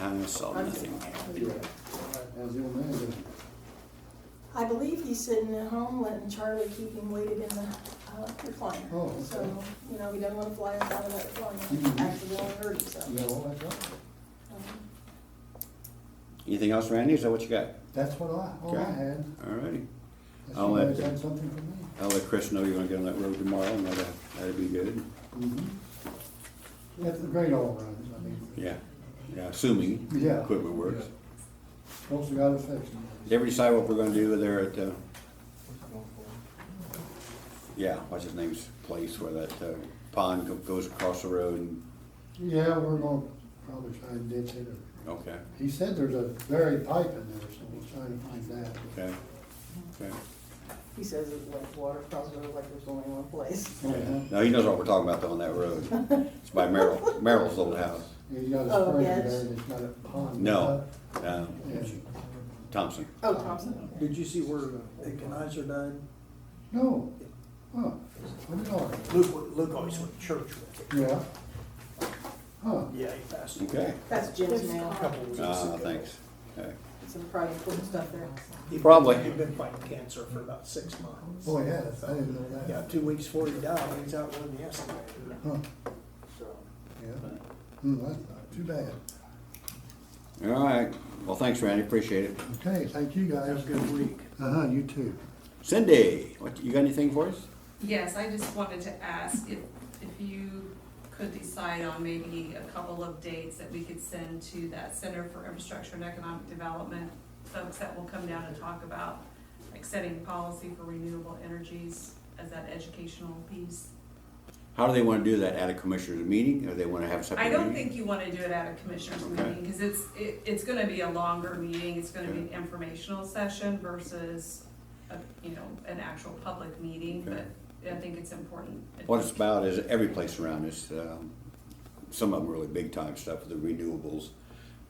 I saw nothing happen. How's the old man doing? I believe he's sitting at home letting Charlie keep him weighted in the uh, recliner. Oh, okay. So, you know, he doesn't wanna fly us out of that Mhm. recliner, actually won't hurt himself. You got all that done? Um, Anything else, Randy? Is that what you got? That's what I, all I Okay. had. All righty. Unless I'll you let guys the- had something for me. I'll let Chris know you're gonna get on that road tomorrow, and that'll, that'll be good. Mm-hmm. That's the great all runs, I mean. Yeah, yeah, assuming Yeah. equipment works. Folks have got to fix them. Did everybody decide what we're gonna do there at, uh, yeah, what's his name's place where that uh, pond go- goes across the road? and- Yeah, we're gonna probably try and ditch it. or- Okay, He said there's a buried pipe in there, so we'll try to find that. okay, okay. He says it's like water across the road, like there's only one place. Uh-huh. No, he knows what we're talking about though on that road. It's by Merrill, Merrill's old house. He's got a Oh, spring yes. there, and it's got a pond. No, uh, Yeah. Thompson. Oh, Thompson. Did you see where the Kenizer died? No. Huh. What are you talking about? Luke, Luke always went to church with him. Yeah. Huh. Yeah, he passed away Okay, That's Jim's a now. couple of weeks uh, ago. thanks. Okay. Some private cool stuff there. He'd been- Probably. He'd been fighting cancer for about six months. Boy, yeah, I didn't know that. Yeah, two weeks before he died, he was out with him yesterday. Huh. So, Yeah. Hmm, that's not too bad. All right, well, thanks, Randy, appreciate it. Okay, thank you guys. Have a good week. Uh-huh, you too. Cindy, what, you got anything for us? Yes, I just wanted to ask if, if you could decide on maybe a couple of dates that we could send to that Center for Infrastructure and Economic Development, folks that will come down and talk about, like, setting policy for renewable energies as that educational piece. How do they want to do that? At a commissioner's meeting, or they want to have a separate I meeting? don't think you wanna do it at a commissioners Okay. meeting, cause it's, it, it's gonna be a longer meeting, it's gonna be an informational session versus, a, you know, an actual public meeting, Okay. but I think it's important. What it's about is every place around us, um, some of them really big time stuff, the renewables.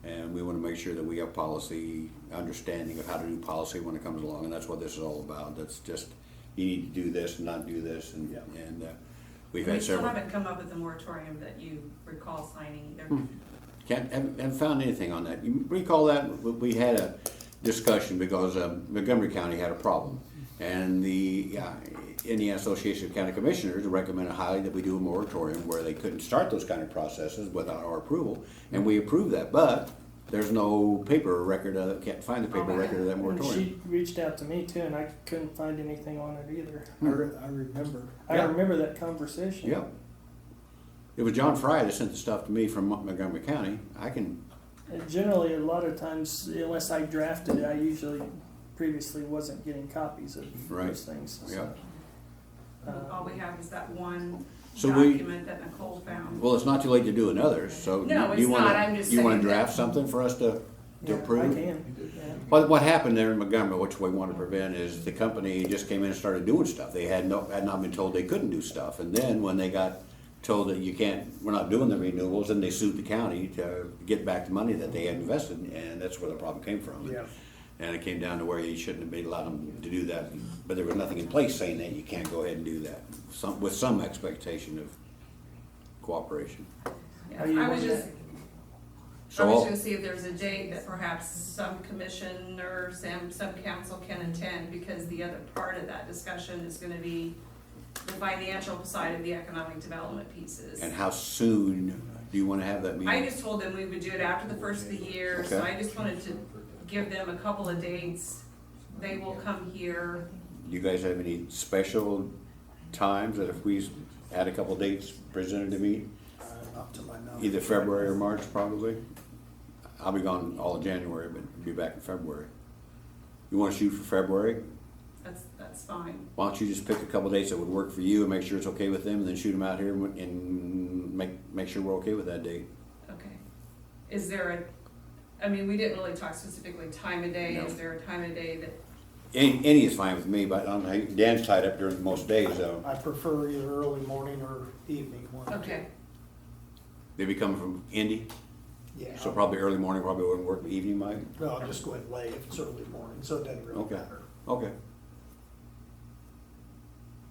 And we want to make sure that we have policy, understanding of how to do policy when it comes along, and that's what this is all about. That's just, you need to do this and not do this, and, Yeah. and uh, we've We had still several. haven't come up with a moratorium that you recall signing either. Can't, haven't, haven't found anything on that. You recall that, we we had a discussion because um, Montgomery County had a problem. And the uh, Indiana Association of County Commissioners recommended highly that we do a moratorium where they couldn't start those kind of processes without our approval. And we approved that, but there's no paper record, of- can't find the paper Oh, yeah. record of that And moratorium. she reached out to me too, and I couldn't find anything on it either. I, re- I remember. I Yeah. remember that conversation. Yep. It was John Fry that sent the stuff to me from Montgomery County. I can, And Uh, generally, a lot of times, unless I drafted it, I usually previously wasn't getting copies of Right. those things. so, uh, All we have is that one So we- document that Nicole found. well, it's not too late to do another, so. No, you- it's you wanna- not. I'm just You want saying to that- draft something for us to, yeah, to approve? I can. Yeah. What, what happened there in Montgomery, which we want to prevent, is the company just came in and started doing stuff. They had no, had not been told they couldn't do stuff. And then when they got told that you can't, we're not doing the renewables, then they sued the county to get back the money that they had invested, and that's where the problem came from. Yeah. And it came down to where you shouldn't have been allowed them to do that, but there was nothing in place saying that you can't go ahead and do that, some, with some expectation of cooperation. Yeah, Are you I was on just, I So, was all- gonna see if there's a date that perhaps some commissioner, some, some council can attend, because the other part of that discussion is gonna be the financial side of the economic development pieces. and how soon do you want to have that meeting? I just told them we would do it after the first of the year, so Okay. I just wanted to give them a couple of dates. They will come here. You guys have any special times that if we had a couple dates presented to me, Uh, Up to my knowledge. either February or March probably? I'll be gone all of January, but be back in February. You wanna shoot for February? That's, that's fine. Why don't you just pick a couple dates that would work for you and make sure it's okay with them and then shoot them out here and- and make, make sure we're okay with that date? Okay. Is there a, I mean, we didn't really talk specifically time of day. Is No. there a time of day that, Any, any is fine with me, but I don't think- Dan's tied up during most days, so I prefer either early morning or evening one. okay, they be coming from Indy, Yeah. so probably early morning probably wouldn't work, but evening might? No, I'll just go ahead and lay if it's early morning, so it doesn't really Okay, matter. okay.